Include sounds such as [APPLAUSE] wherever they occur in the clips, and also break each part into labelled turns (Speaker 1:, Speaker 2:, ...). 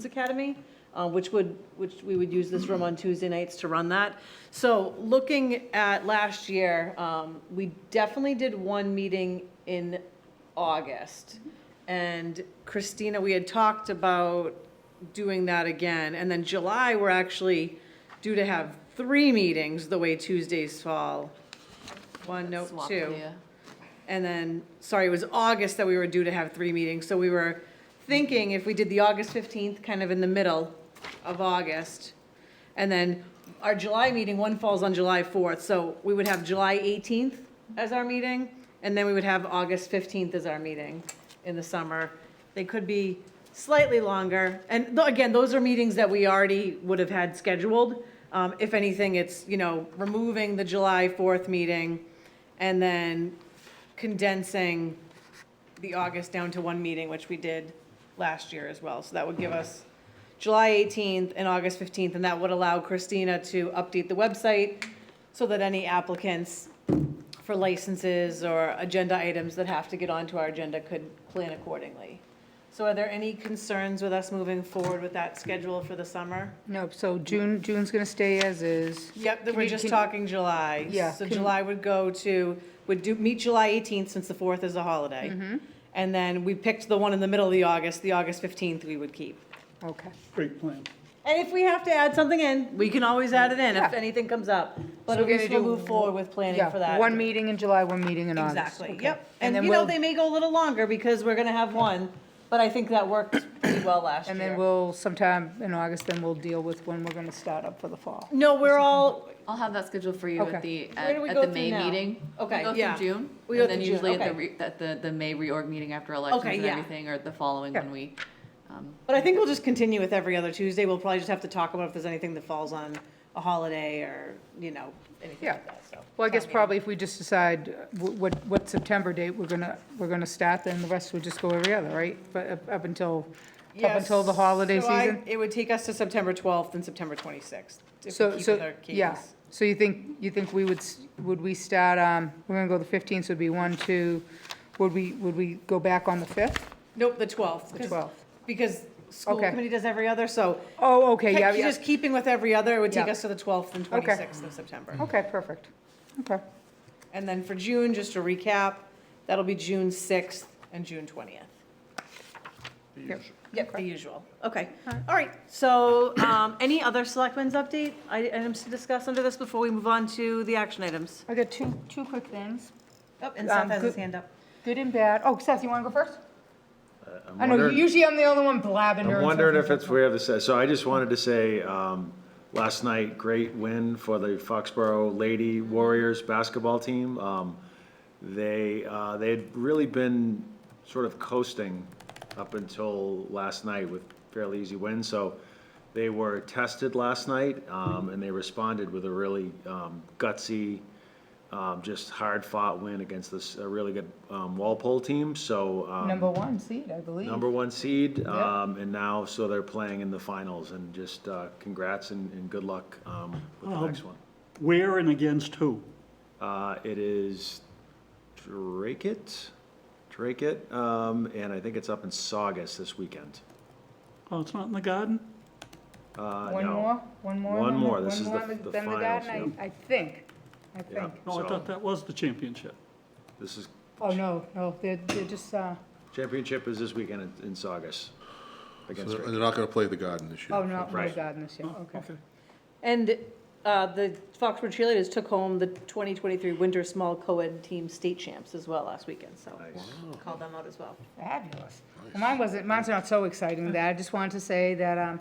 Speaker 1: Citizens Academy, uh, which would, which we would use this room on Tuesday nights to run that. So looking at last year, um, we definitely did one meeting in August. And Christina, we had talked about doing that again. And then July, we're actually due to have three meetings the way Tuesdays fall. One, note
Speaker 2: Swap
Speaker 1: two.
Speaker 2: the, uh,
Speaker 1: And then, sorry, it was August that we were due to have three meetings, so we were thinking if we did the August 15th, kind of in the middle of August, and then our July meeting, one falls on July 4th, so we would have July 18th as our meeting, and then we would have August 15th as our meeting in the summer. They could be slightly longer, and tho- again, those are meetings that we already would have had scheduled. Um, If anything, it's, you know, removing the July 4th meeting, and then condensing the August down to one meeting, which we did last year as well. So that would give us July 18th and August 15th, and that would allow Christina to update the website so that any applicants for licenses or agenda items that have to get onto our agenda could plan accordingly. So are there any concerns with us moving forward with that schedule for the summer?
Speaker 3: No, so June, June's going to stay as is.
Speaker 1: Yep, then
Speaker 3: Can
Speaker 1: we're
Speaker 3: you-
Speaker 1: just
Speaker 3: can-
Speaker 1: talking July.
Speaker 3: Yeah,
Speaker 1: So
Speaker 3: can-
Speaker 1: July would go to, would do, meet July 18th since the 4th is a holiday. And then we picked the one in the middle of the August, the August 15th we would keep.
Speaker 3: Okay.
Speaker 4: Great plan.
Speaker 1: And if we have to add something in, we can always add it in if
Speaker 3: Yeah.
Speaker 1: anything comes up. But
Speaker 3: So
Speaker 1: at
Speaker 3: we're
Speaker 1: least
Speaker 3: gonna
Speaker 1: we'll
Speaker 3: do
Speaker 1: move forward with planning
Speaker 3: Yeah,
Speaker 1: for that.
Speaker 3: One meeting in July, one meeting in August.
Speaker 1: Exactly,
Speaker 3: Okay.
Speaker 1: yep.
Speaker 3: And
Speaker 1: And
Speaker 3: then
Speaker 1: you know,
Speaker 3: we'll,
Speaker 1: they may go a little longer because we're gonna have one, but I think that worked pretty well last year.
Speaker 3: and then we'll, sometime in August, then we'll deal with when we're going to start up for the fall.
Speaker 1: No, we're all,
Speaker 2: I'll have that scheduled for you at
Speaker 3: Okay.
Speaker 2: the,
Speaker 1: Where
Speaker 2: at
Speaker 1: do we
Speaker 2: at
Speaker 1: go
Speaker 2: the
Speaker 1: through
Speaker 2: May
Speaker 1: now?
Speaker 2: meeting.
Speaker 1: Okay, yeah.
Speaker 2: We go through
Speaker 1: We
Speaker 2: June,
Speaker 1: go
Speaker 2: and then
Speaker 1: through June,
Speaker 2: usually at the,
Speaker 1: okay.
Speaker 2: re- at the, the May reorg meeting after elections
Speaker 1: Okay,
Speaker 2: and
Speaker 1: yeah.
Speaker 2: everything, or the following
Speaker 3: Yeah.
Speaker 2: when we, um,
Speaker 1: But I think we'll just continue with every other Tuesday. We'll probably just have to talk about if there's anything that falls on a holiday or, you know, anything like
Speaker 3: Yeah.
Speaker 1: that, so.
Speaker 3: Well, I guess probably if we just decide wh- what, what September date we're going to, we're going to start, then the rest would just go every other, right? But up- up until, up until the holiday
Speaker 1: So I-
Speaker 3: season?
Speaker 1: It would take us to September 12th and September 26th. if we
Speaker 3: So,
Speaker 1: keep with
Speaker 3: so,
Speaker 1: our
Speaker 3: yeah,
Speaker 1: cadence.
Speaker 3: so you think, you think we would, s- would we start, um, we're gonna go the fifteenth, so it'd be one, two, would we, would we go back on the fifth,
Speaker 1: Nope, the 12th.
Speaker 3: the
Speaker 1: 'cause-
Speaker 3: twelfth?
Speaker 1: Because school
Speaker 3: Okay.
Speaker 1: committee does every other, so
Speaker 3: Oh, okay, yeah,
Speaker 1: keep-
Speaker 3: yeah,
Speaker 1: just keeping with every other, it would take
Speaker 3: Yeah.
Speaker 1: us to the 12th and 26th of September.
Speaker 3: okay, perfect, okay,
Speaker 1: And then for June, just to recap, that'll be June 6th and June 20th.
Speaker 3: Yep.
Speaker 1: Yep, the usual. Okay. All right. So um, [COUGHS] any other selectmen's update I- items to discuss under this before we move on to the action items?
Speaker 3: I got two, two quick things,
Speaker 1: Oh, and
Speaker 3: Um,
Speaker 1: Seth has his
Speaker 3: good-
Speaker 1: hand up.
Speaker 3: good and bad, oh, Seth, you wanna go first?
Speaker 5: I'm
Speaker 3: I know,
Speaker 5: wondering-
Speaker 3: usually I'm the only one blabbing during.
Speaker 5: I'm wondering if
Speaker 3: something.
Speaker 5: it's weird to say, so I just wanted to say, um, last night, great win for the Foxborough Lady Warriors basketball team. Um, They, uh, they had really been sort of coasting up until last night with fairly easy wins, so they were tested last night, um, and they responded with a really um, gutsy, um, just hard-fought win against this, a really good um, Walpole team, so. um,
Speaker 3: Number one seed, I believe.
Speaker 5: number one seed,
Speaker 3: Yeah.
Speaker 5: um, and now, so they're playing in the finals, and just, uh, congrats and, and good luck, um, with
Speaker 3: Oh.
Speaker 5: the next one.
Speaker 4: Where and against who?
Speaker 5: Uh, it is Drake it, Drake it, um, and I think it's up in Saugus this weekend.
Speaker 4: Oh, it's not in the garden?
Speaker 5: Uh,
Speaker 3: One
Speaker 5: no.
Speaker 3: more, one more.
Speaker 5: One
Speaker 3: than
Speaker 5: more. This
Speaker 3: one
Speaker 5: is the-
Speaker 3: than
Speaker 5: the
Speaker 3: than
Speaker 5: finals,
Speaker 3: Garden, I I think, Oh, I
Speaker 5: Yeah,
Speaker 3: think.
Speaker 4: No, I
Speaker 5: so,
Speaker 4: thought that was the championship.
Speaker 5: this is,
Speaker 3: Oh, no, no, they're, they're just, uh,
Speaker 5: championship is this weekend in- in Saugus.
Speaker 6: So
Speaker 5: Against,
Speaker 6: They're
Speaker 5: Drake.
Speaker 6: they're not gonna play the garden this year.
Speaker 3: oh, not
Speaker 5: Right.
Speaker 3: Rose Garden this year, okay.
Speaker 1: And uh, the Foxborough cheerleaders took home the 2023 Winter Small Co-ed Team State Champs as well last weekend, so
Speaker 5: Nice.
Speaker 1: called them out as well.
Speaker 3: Fabulous. Well, Mine wasn't, mine's not so exciting that, I just wanted to say that, um,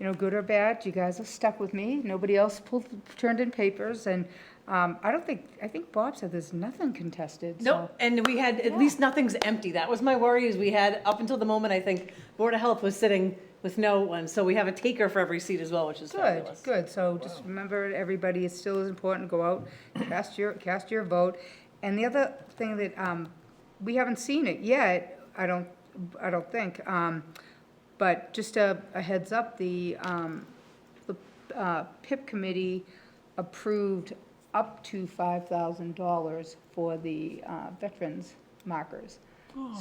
Speaker 3: you know, good or bad, you guys have stuck with me. Nobody else pulled, turned in papers, and, um, I don't think, I think Bob said there's nothing contested, so.
Speaker 1: Nope, and we had, at least nothing's empty. That was my worry, is we had, up until the moment, I think, Board of Health was sitting with no one, so we have a taker for every seat as well, which is
Speaker 3: Good,
Speaker 1: fabulous.
Speaker 3: good, so just remember, everybody, it's still as important, go out, cast your, cast your vote. And the other thing that, um, we haven't seen it yet, I don't, I don't think, um, but just a, a heads up, the, um, the, uh, PIP committee approved up to five thousand dollars for the, uh, veterans markers.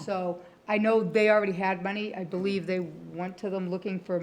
Speaker 3: So, I know they already had money, I believe they went to them looking for